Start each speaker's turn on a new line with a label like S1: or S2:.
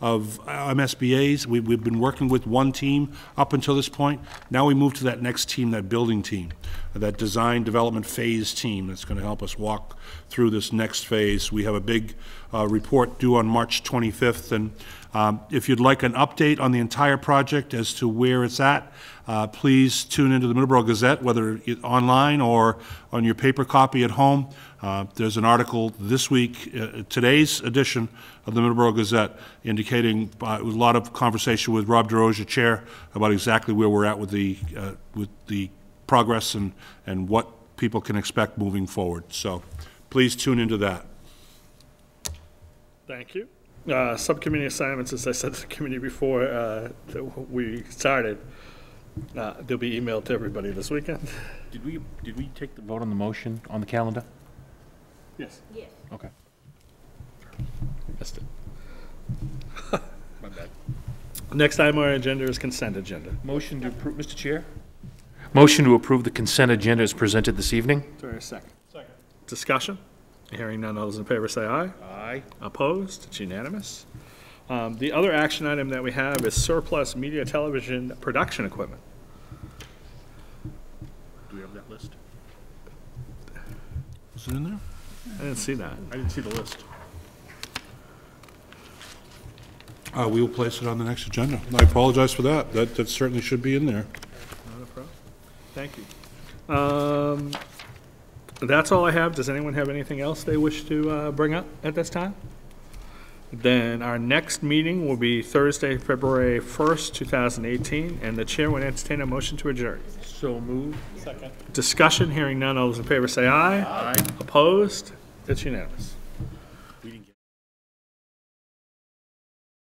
S1: of uh, MSBA's. We, we've been working with one team up until this point. Now we move to that next team, that building team, that design development phase team that's going to help us walk through this next phase. We have a big uh, report due on March 25th, and um, if you'd like an update on the entire project as to where it's at, uh, please tune into the Middleborough Gazette, whether it- online or on your paper copy at home. Uh, There's an article this week, uh, today's edition of the Middleborough Gazette, indicating uh, a lot of conversation with Rob DeRosa, Chair, about exactly where we're at with the, uh, with the progress and, and what people can expect moving forward. So please tune into that.
S2: Thank you. Uh, Subcommittee assignments, as I said to the committee before uh, that we started, uh, they'll be emailed to everybody this weekend.
S3: Did we, did we take the vote on the motion on the calendar?
S2: Yes.
S3: Okay.
S2: Missed it. Next item on our agenda is consent agenda.
S3: Motion to approve, Mr. Chair? Motion to approve the consent agenda is presented this evening.
S2: Do I hear a second? Second. Discussion? Hearing none, all those in favor say aye.
S3: Aye.
S2: Opposed? It's unanimous. Um, The other action item that we have is surplus media television production equipment.
S3: Do we have that list?
S1: Is it in there?
S2: I didn't see that.
S3: I didn't see the list.
S1: Uh, we will place it on the next agenda. I apologize for that. That, that certainly should be in there.
S2: Not a problem. Thank you. Um, That's all I have. Does anyone have anything else they wish to uh, bring up at this time? Then our next meeting will be Thursday, February 1st, 2018, and the chair would entertain a motion to adjourn.
S3: So moved.
S2: Discussion, hearing none. All those in favor say aye. Aye. Opposed? It's unanimous.